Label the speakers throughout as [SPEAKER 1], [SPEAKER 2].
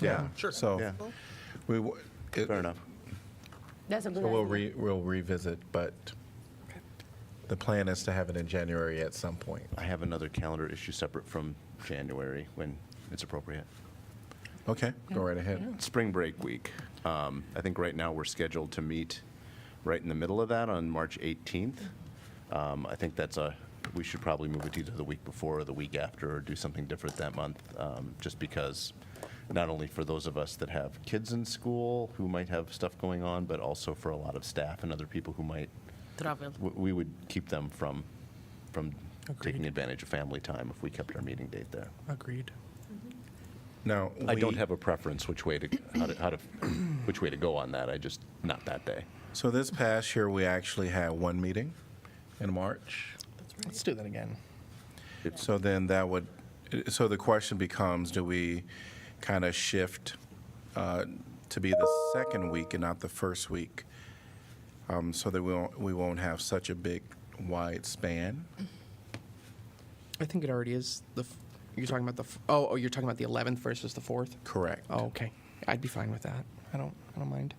[SPEAKER 1] Yeah,
[SPEAKER 2] Sure.
[SPEAKER 3] So
[SPEAKER 1] Yeah.
[SPEAKER 3] we, w- it-
[SPEAKER 1] fair enough.
[SPEAKER 4] That's a
[SPEAKER 3] so
[SPEAKER 4] good
[SPEAKER 3] we'll
[SPEAKER 4] idea.
[SPEAKER 3] re, we'll revisit, but the plan is to have it in January at some point.
[SPEAKER 1] I have another calendar issue separate from January when it's appropriate.
[SPEAKER 3] Okay, go right ahead.
[SPEAKER 1] Spring break week. Um, I think right now we're scheduled to meet right in the middle of that on March 18th. Um, I think that's a, we should probably move it either the week before or the week after or do something different that month, um, just because not only for those of us that have kids in school who might have stuff going on, but also for a lot of staff and other people who might,
[SPEAKER 4] Travel.
[SPEAKER 1] w- we would keep them from, from taking advantage of family time if we kept our meeting date there.
[SPEAKER 2] Agreed.
[SPEAKER 3] Now,
[SPEAKER 1] I don't
[SPEAKER 3] we-
[SPEAKER 1] have a preference which way to, how to, how to, which way to go on that. I just, not that day.
[SPEAKER 3] So this past year, we actually had one meeting in March.
[SPEAKER 2] Let's do that again.
[SPEAKER 3] So then that would, so the question becomes, do we kind of shift uh, to be the second week and not the first week? um, So that we won't, we won't have such a big wide span?
[SPEAKER 1] Mm-hmm.
[SPEAKER 2] I think it already is the. F- you're talking about the. F- oh, oh, you're talking about the 11th versus the 4th.
[SPEAKER 3] Correct.
[SPEAKER 2] Oh, okay. I'd be fine with that. I don't. I don't mind.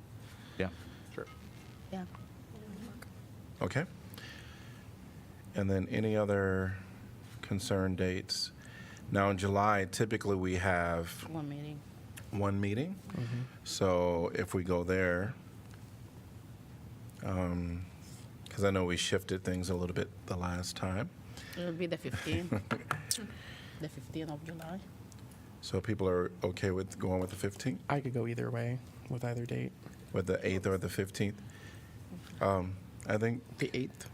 [SPEAKER 1] Yeah. Sure.
[SPEAKER 4] Yeah.
[SPEAKER 3] Okay. And then any other concern dates? Now, in July, typically we have
[SPEAKER 4] One meeting.
[SPEAKER 3] one meeting. So if we go there, because I know we shifted things a little bit the last time,
[SPEAKER 4] It'll be the 15th. the 15th of July.
[SPEAKER 3] so people are okay with going with the 15th,
[SPEAKER 2] I could go either way with either date.
[SPEAKER 3] with the 8th or the 15th. Um, I think,
[SPEAKER 2] The 8th.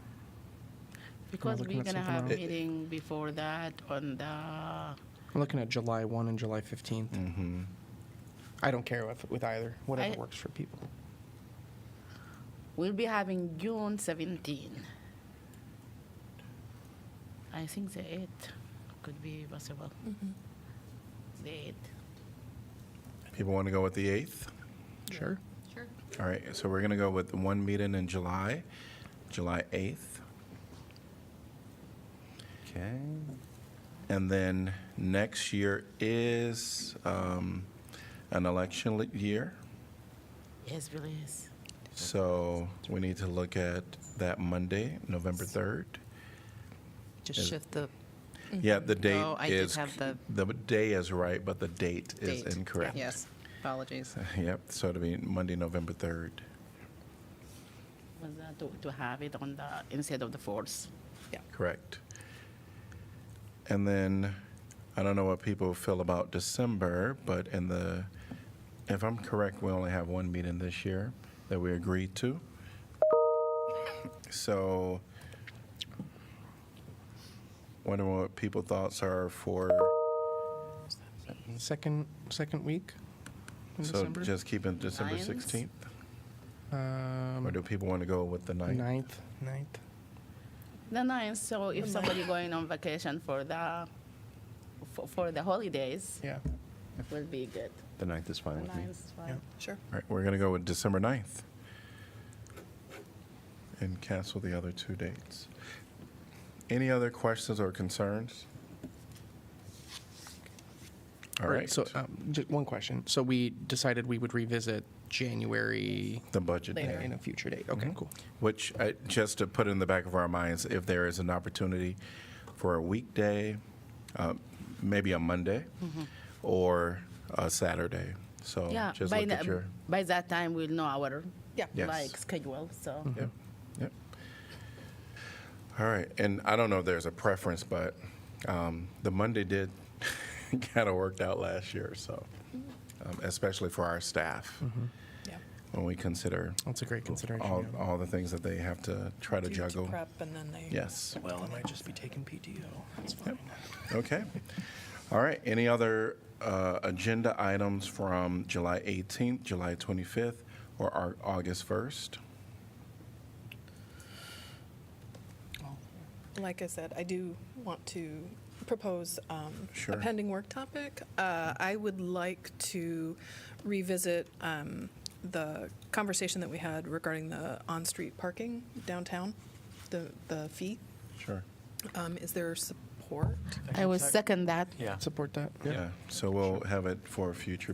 [SPEAKER 4] Because
[SPEAKER 2] looking
[SPEAKER 4] we're
[SPEAKER 2] at
[SPEAKER 4] gonna
[SPEAKER 2] something
[SPEAKER 4] have
[SPEAKER 2] else.
[SPEAKER 4] meeting before that on the.
[SPEAKER 2] I'm looking at July 1 and July 15th. Mm-hmm. I don't care with with either. Whatever
[SPEAKER 4] I-
[SPEAKER 2] works for people.
[SPEAKER 4] We'll be having June 17. I think the 8th could be possible. The 8th.
[SPEAKER 3] people want to go with the 8th.
[SPEAKER 2] Sure.
[SPEAKER 5] Sure.
[SPEAKER 3] All right, so we're going to go with one meeting in July, July 8th.
[SPEAKER 1] Okay.
[SPEAKER 3] And then next year is um, an election li- year.
[SPEAKER 4] Yes, please.
[SPEAKER 3] So we need to look at that Monday, November 3rd.
[SPEAKER 6] Just shift the,
[SPEAKER 3] Yeah, the date
[SPEAKER 6] Oh, I did
[SPEAKER 3] is,
[SPEAKER 6] have the-
[SPEAKER 3] the day is right, but the date is
[SPEAKER 6] Date, yeah.
[SPEAKER 3] incorrect.
[SPEAKER 6] yes, apologies.
[SPEAKER 3] Yep, so it'll be Monday, November 3rd.
[SPEAKER 4] Was that to, to have it on the instead of the 4th.
[SPEAKER 3] Correct. And then, I don't know what people feel about December, but in the, if I'm correct, we only have one meeting this year that we agreed to. So, wondering what people thoughts are for,
[SPEAKER 2] Second second week. In
[SPEAKER 3] so
[SPEAKER 2] December.
[SPEAKER 3] just keeping December
[SPEAKER 4] Lions?
[SPEAKER 3] 16th? Or
[SPEAKER 2] um,
[SPEAKER 3] do people want to go with the ninth?
[SPEAKER 2] 9th. 9th.
[SPEAKER 4] The ninth. So if somebody going on vacation for the for, for the holidays,
[SPEAKER 2] Yeah.
[SPEAKER 4] will be good.
[SPEAKER 1] The ninth is
[SPEAKER 4] The
[SPEAKER 1] fine with me.
[SPEAKER 4] ninth, fine.
[SPEAKER 2] Yeah.
[SPEAKER 6] Sure.
[SPEAKER 3] All right, we're going to go with December 9th and cancel the other two dates. Any other questions or concerns? All right,
[SPEAKER 2] So,
[SPEAKER 4] uh,
[SPEAKER 2] um, just one question. So we decided we would revisit January
[SPEAKER 3] the budget
[SPEAKER 2] in a-
[SPEAKER 3] day,
[SPEAKER 2] in a future date. Okay, cool.
[SPEAKER 3] which, I- just to put in the back of our minds, if there is an opportunity for a weekday, uh, maybe a Monday, or a Saturday. So
[SPEAKER 4] Mm-hmm. Yeah,
[SPEAKER 3] just
[SPEAKER 4] by,
[SPEAKER 3] look
[SPEAKER 4] the-
[SPEAKER 3] at your,
[SPEAKER 4] by that time we'll know our
[SPEAKER 6] Yeah.
[SPEAKER 3] Yes.
[SPEAKER 4] like schedule. So
[SPEAKER 3] Yep, yep. All right, and I don't know if there's a preference, but um, the Monday did kind of worked out last year, so, um, especially for our staff,
[SPEAKER 6] Yeah.
[SPEAKER 3] when we consider
[SPEAKER 2] That's a great consideration.
[SPEAKER 3] all,
[SPEAKER 2] yeah.
[SPEAKER 3] all the things that they have to try to
[SPEAKER 6] Do you
[SPEAKER 3] juggle.
[SPEAKER 6] Prep and then they.
[SPEAKER 3] Yes,
[SPEAKER 2] Well, I might just be taking PTO. That's fine.
[SPEAKER 3] okay. All right, any other uh, agenda items from July 18th, July 25th, or our August 1st?
[SPEAKER 5] Like I said, I do want to propose um,
[SPEAKER 3] Sure.
[SPEAKER 5] a pending work topic. Uh, I would like to revisit um, the conversation that we had regarding the on-street parking downtown, the, the fee.
[SPEAKER 3] Sure.
[SPEAKER 5] Um, Is there support?
[SPEAKER 4] I will second that.
[SPEAKER 2] Support that.
[SPEAKER 3] Yeah, so we'll have it for a future